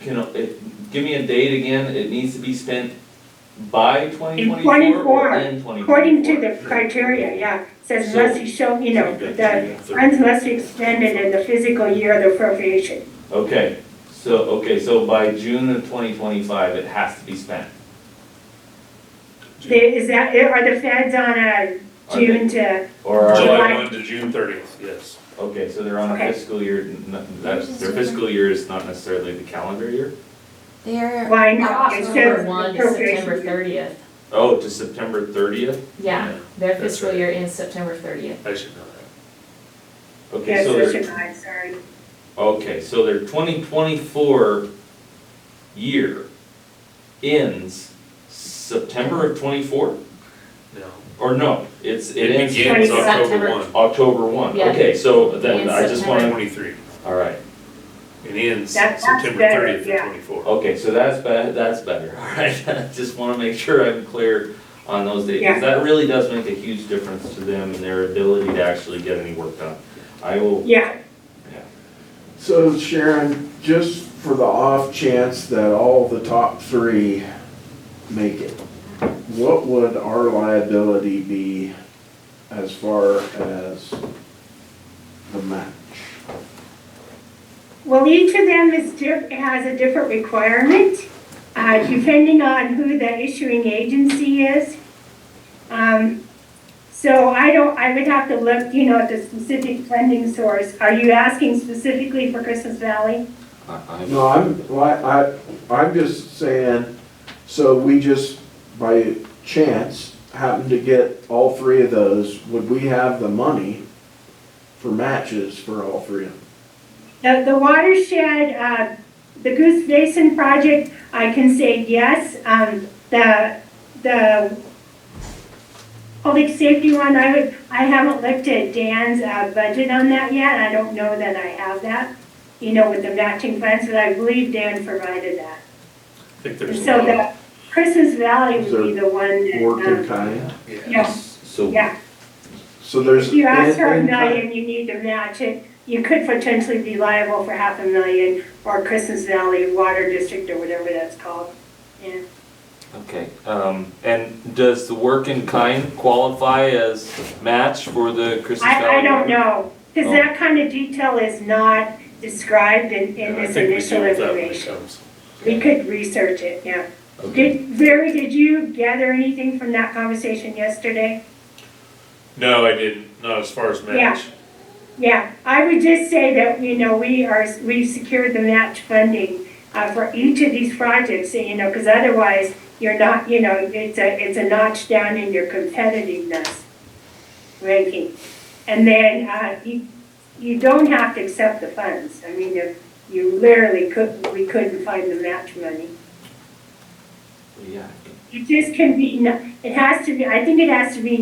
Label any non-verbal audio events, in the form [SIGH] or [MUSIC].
can, it- give me a date again, it needs to be spent by twenty twenty-four 24, or in twenty twenty-four? According to the criteria, yeah, says unless you show, you know, the funds must be expended in the physical year of the appropriation. Okay, so, okay, so by June of twenty twenty-five, it has to be spent. They- Is that, eh, are the feds on a Are they- June to, Or are, July. July 1 to June 30th, yes. okay, so they're on a Okay. fiscal year, n- n- that's, their fiscal year is not necessarily the calendar year? They're why not? It October says one to September appropriation. thirtieth. Oh, to September thirtieth? Yeah, their That's fiscal right. year ends September thirtieth. I should know that. Okay, Yes, so that's they're, July, sorry. okay, so their twenty twenty-four year ends September of twenty-four? No. Or no, it's, it It ends begins Twenty- October September. 1, October one, Yeah. okay, so then Ends I just wanna, 23. alright, It ends That- that's September better, 30th of yeah. 24. okay, so that's be- that's better, [LAUGHS] alright, just wanna make sure I'm clear on those dates, Yeah. because that really does make a huge difference to them and their ability to actually get any work done. I will, Yeah, So Sharon, just for the off chance that all the top three make it, what would our liability be as far as the match? well, each of them is, diff- has a different requirement, uh, depending on who the issuing agency is. Um, So I don't, I would have to look, you know, at the specific funding source. Are you asking specifically for Christmas Valley? No, I'm, li- I, I'm just saying, so we just by chance happen to get all three of those, would we have the money for matches for all three of them? The, the watershed, uh, the Goose Basin project, I can say yes. Um, the, the public safety one, I would, I haven't looked at Dan's, uh, budget on that yet. I don't know that I have that, you know, with the matching funds, but I believe Dan provided that. I think So there's. a lot. the Christmas Valley would be the one Work in that, um, kind? yeah, so, yeah. So there's. If you ask for a in- in kind- million, you need to match it, you could potentially be liable for half a million, or Christmas Valley Water District, or whatever that's called. Yeah. okay, um, and does the work in kind qualify as match for the Christmas I, I Valley don't Water? know, because Oh. that kind of detail is not described in, in And I this think we initial deal with that when it information. comes. We could research it, yeah. Okay, Did, Barry, did you gather anything from that conversation yesterday? No, I didn't, not as far as match. Yeah, I would just say that, you know, we are, we've secured the match funding uh, for each of these projects, you know, because otherwise you're not, you know, it's a, it's a notch down in your competitiveness ranking. And then uh, you, you don't have to accept the funds. I mean, if you literally could, we couldn't find the match money. yeah. It just can be, it has to be, I think it has to be